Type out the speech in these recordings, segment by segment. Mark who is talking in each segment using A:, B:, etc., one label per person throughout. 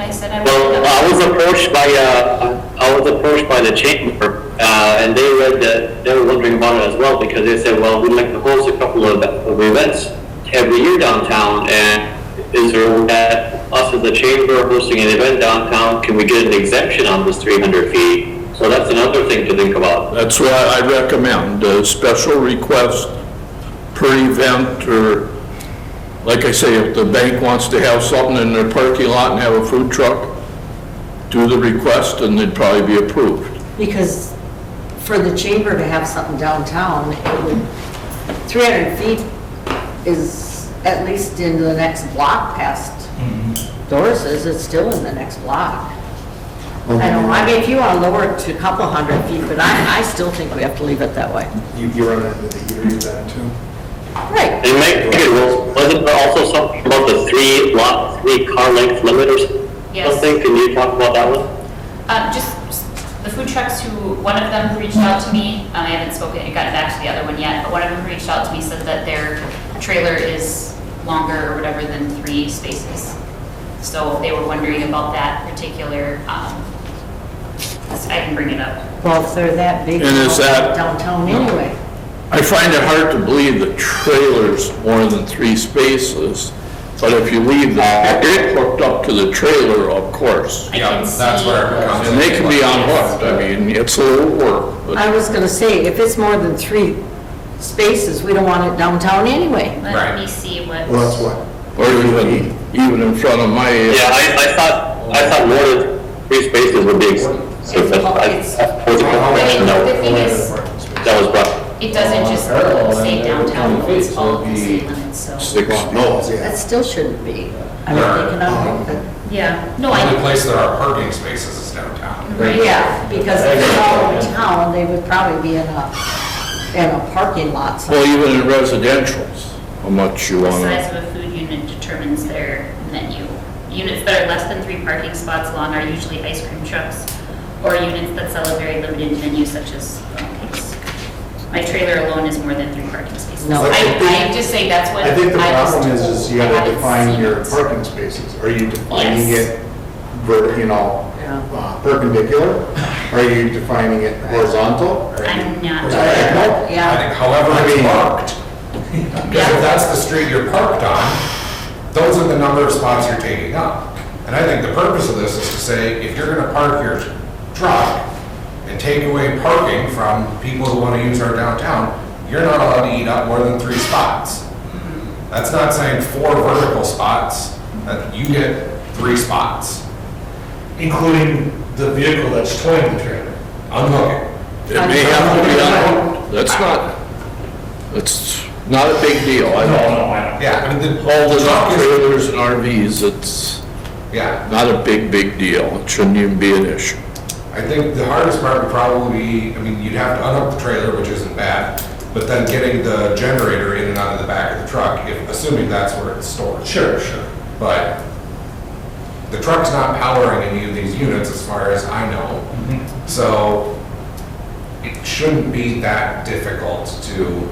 A: I said, I
B: Well,
A: would.
B: I was approached by, uh, I was approached by the chamber, uh, and they read that, they were wondering about it as well, because they said, well, we'd like to host a couple of of events every year downtown, and is there that, us as a chamber hosting an event downtown, can we get an exemption on this three hundred feet? So that's another thing to think about.
C: That's why I recommend a special request per event, or, like I say, if the bank wants to have something in their parking lot and have a food truck, do the request and they'd probably be approved.
D: Because for the chamber to have something downtown, it would, 300 feet is at least into the next block past
C: Mm-hmm.
D: Doris's, it's still in the next block. I don't, I mean, if you want to lower it to a couple hundred feet, but I, I still think we have to leave it that way.
E: You, you run into the eerie then too.
D: Right.
B: They might, it was, wasn't there also something about the three lot, three car length limit or
A: Yes.
B: something? Can you talk about that one?
A: Uh, just the food trucks who, one of them reached out to me, and I haven't spoken, gotten back to the other one yet, but one of them reached out to me, said that their trailer is longer or whatever than three spaces. So they were wondering about that particular, um, I can bring it up.
D: Well, if they're that big,
C: And is that-
D: downtown anyway.
C: I find it hard to believe the trailer's more than three spaces, but if you leave the, hooked up to the trailer, of course.
A: I
F: Yeah,
A: can
F: that's
A: see-
F: where it comes.
C: And they can be unhooked, I mean, it's a little work, but.
D: I was going to say, if it's more than three spaces, we don't want it downtown anyway.
A: Let
F: Right.
A: me see what.
E: Well, that's what,
C: Or even, even in front of my.
B: Yeah, I, I thought, I thought more than three spaces would be, so that's, I, that was a question
A: The
B: that
A: thing is,
B: that was brought.
A: it doesn't just
F: Parallel,
A: say
F: and
A: downtown,
F: then
A: it's all of the
F: it'd be-
A: city limits, so.
C: Six.
F: Oh,
E: no,
D: That
E: yeah.
D: still shouldn't be. I mean, they can all-
A: Yeah, no,
F: The
A: I,
F: only place there are parking spaces is downtown.
A: right.
D: Yeah, because if they're all in town, they would probably be in a, in a parking lot somewhere.
C: Well, even in residentials, how much you
A: The
C: want to.
A: size of a food unit determines their menu. Units that are less than three parking spots long are usually ice cream trucks or units that sell a very limited menu such as um, cakes. My trailer alone is more than three parking spaces.
D: No.
A: I, I just say that's what.
E: I think the
A: was
E: problem is, is you
A: told. I
E: gotta
A: haven't
E: define
A: seen
E: your
A: it.
E: parking spaces. Are you defining
A: Yes.
E: it, ver- you know,
D: Yeah.
E: uh, perpendicular? Are you defining it horizontal? Are you-
A: I'm not.
E: Diagonal?
F: I
D: Yeah,
F: think however
E: I
F: it's
E: mean-
F: parked. Because if that's the street you're parked on, those are the number of spots you're taking up. And I think the purpose of this is to say, if you're gonna park your truck and take away parking from people who wanna use our downtown, you're not allowed to eat up more than three spots. That's not saying four vertical spots, that you get three spots.
G: including the vehicle that's towing the trailer.
F: Unhook it.
C: It may have to be on, that's not, that's not a big deal, I know.
G: I
F: Yeah, I mean, the.
C: All the
F: truck is-
C: trailers and RVs, it's
F: Yeah,
C: not a big, big deal, it shouldn't even be an issue.
F: I think the hardest part would probably be, I mean, you'd have to unhook the trailer, which isn't bad, but then getting the generator in and out of the back of the truck, if, assuming that's where it's stored.
G: Sure, sure.
F: But the truck's not powering any of these units as far as I know.
G: Mm-hmm.
F: So it shouldn't be that difficult to,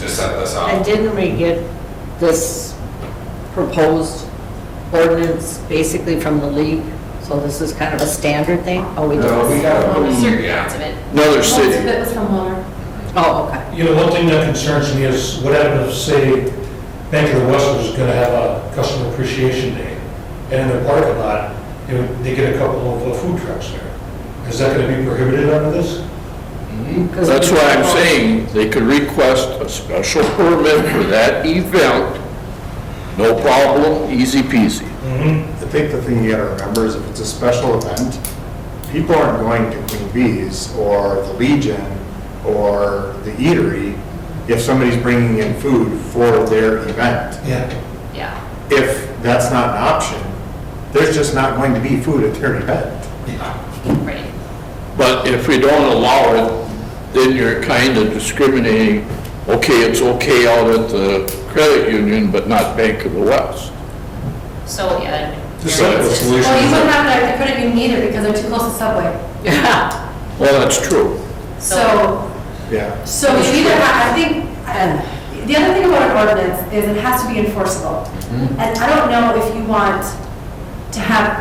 F: to set this
D: and
F: up.
D: didn't we get this proposed ordinance basically from the league? So this is kind of a standard thing? Oh, we did.
F: No, we got
A: Only certain
F: yeah.
A: parts of it.
C: Another
H: Most of
C: city,
H: it was from Mueller.
D: Oh, okay.
G: You know, one thing that concerns me is what happened if, say, Bank of the West was gonna have a customer appreciation day, and in their parking lot, they would- they get a couple of uh, food trucks there. Is that gonna be prohibited under this?
D: 'Cause
C: that's
D: we-
C: why I'm saying, they could request a special permit for that event, no problem, easy peasy.
E: I think the thing you gotta remember is if it's a special event, people aren't going to Queen Bee's or the Legion or the Eatery if somebody's bringing in food for their event.
G: Yeah.
A: Yeah.
E: If that's not an option, there's just not going to be food at their event.
A: Right.
C: But if we don't allow it, then you're kind of discriminating, okay, it's okay out at the credit union, but not Bank of the West.
A: So, yeah.
E: Just like the solution
H: Well, you wouldn't have that, they couldn't even need it because they're too close to Subway.
D: Yeah,
C: Well, that's true.
H: So,
E: Yeah.
H: so you either have, I think, uh, the other thing about an ordinance is it has to be enforceable. And I don't know if you want to have